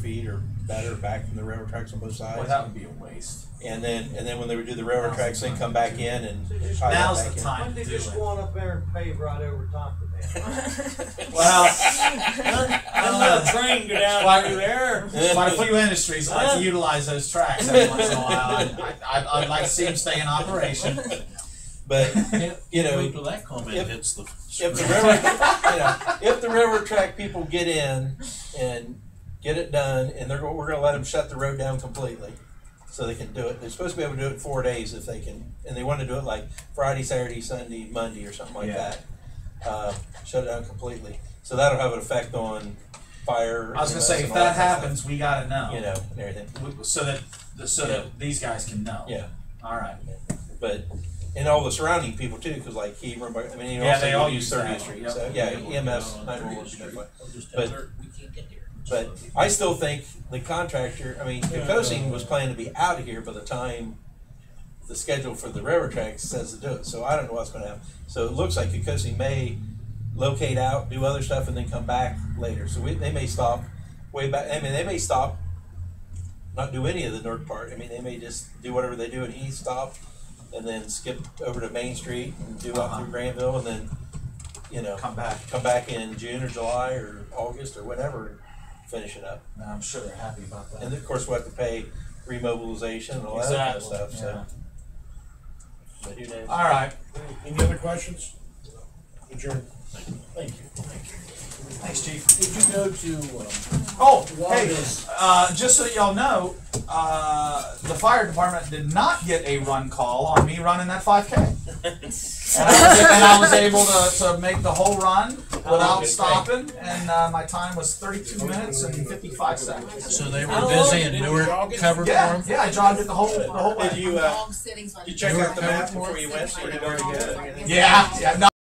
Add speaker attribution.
Speaker 1: feet or better back from the railroad tracks on both
Speaker 2: Well,
Speaker 1: sides.
Speaker 2: that would be a waste.
Speaker 1: And then, and then when they would do the railroad tracks, they come back in and.
Speaker 3: So just-
Speaker 1: tie that
Speaker 2: Now's
Speaker 1: back
Speaker 2: the
Speaker 1: in.
Speaker 2: time.
Speaker 3: Why don't they just go on up there and pave right over top of that?
Speaker 2: Well,
Speaker 3: Then let a train go down
Speaker 2: Why-
Speaker 3: through there.
Speaker 2: by a few industries that like to utilize those tracks every once in a while. and I, I, I'd like to see them stay in operation.
Speaker 1: But, you know,
Speaker 4: Wait till that comment
Speaker 1: if-
Speaker 4: hits the.
Speaker 1: if the
Speaker 4: screen.
Speaker 1: railroad, you know, if the railroad track people get in and get it done, and they're go- we're going to let them shut the road down completely, so they can do it. They're supposed to be able to do it four days if they can, and they want to do it like Friday, Saturday, Sunday, Monday, or something like
Speaker 2: Yeah.
Speaker 1: that. Uh, shut it down completely. So that'll have an effect on fire.
Speaker 2: I was gonna
Speaker 1: EMS,
Speaker 2: say
Speaker 1: and
Speaker 2: if
Speaker 1: all
Speaker 2: that
Speaker 1: kind of stuff,
Speaker 2: happens, we gotta know.
Speaker 1: you know, and everything.
Speaker 2: W- So that the- so that these guys can know.
Speaker 1: Yeah,
Speaker 2: All right.
Speaker 1: but. And all the surrounding people too, because like he, remember, I mean, he
Speaker 2: Yeah,
Speaker 1: also
Speaker 2: they all
Speaker 1: used
Speaker 2: use that
Speaker 1: 30th
Speaker 2: one,
Speaker 1: Street,
Speaker 2: yep.
Speaker 1: so yeah, E EMS, 911
Speaker 4: On 30th
Speaker 1: should
Speaker 4: Street.
Speaker 1: be like-
Speaker 4: I'll just
Speaker 1: but-
Speaker 4: alert, we can't get here.
Speaker 1: But I still think the contractor, I mean, Kocing was planning to be out of here by the time the schedule for the railroad tracks says to do it, so I don't know what's gonna happen. So it looks like Kocing may locate out, do other stuff, and then come back later, so we, they may stop way back, I mean, they may stop, not do any of the north part, I mean, they may just do whatever they do at East Stop, and then skip over to Main Street and do up
Speaker 2: Uh-huh.
Speaker 1: through Granville, and then, you know,
Speaker 2: Come back.
Speaker 1: come back in June or July or August or whatever, and finish it up.
Speaker 2: Now, I'm sure they're happy about that.
Speaker 1: And of course, we'll have to pay remobilization and all that kind of
Speaker 2: exactly.
Speaker 1: stuff, so.
Speaker 2: yeah.
Speaker 1: but who knows?
Speaker 2: All right.
Speaker 5: Any other questions? Adjourn.
Speaker 4: Thank you.
Speaker 2: Thanks, Chief.
Speaker 4: Did you go to, um,
Speaker 2: Oh,
Speaker 4: Why
Speaker 2: hey,
Speaker 4: does-
Speaker 2: uh, just so y'all know, uh, the fire department did not get a run call on me running that 5K. And I was, and I was able to, to make the whole run without stopping, and uh, my time was 32 minutes and 55 seconds.
Speaker 4: so they
Speaker 6: How
Speaker 4: were
Speaker 6: long
Speaker 4: busy
Speaker 6: did
Speaker 4: and
Speaker 6: it
Speaker 4: Newark
Speaker 5: jog it?
Speaker 4: covered for
Speaker 2: Yeah,
Speaker 4: them?
Speaker 2: yeah, I jogged it the whole, the whole way.
Speaker 1: Did you, uh,
Speaker 6: Long sitting, so I
Speaker 1: you
Speaker 6: didn't-
Speaker 1: check out
Speaker 4: out
Speaker 1: the
Speaker 4: the
Speaker 1: map before you went, so you know where to go?
Speaker 2: Yeah, yeah, no,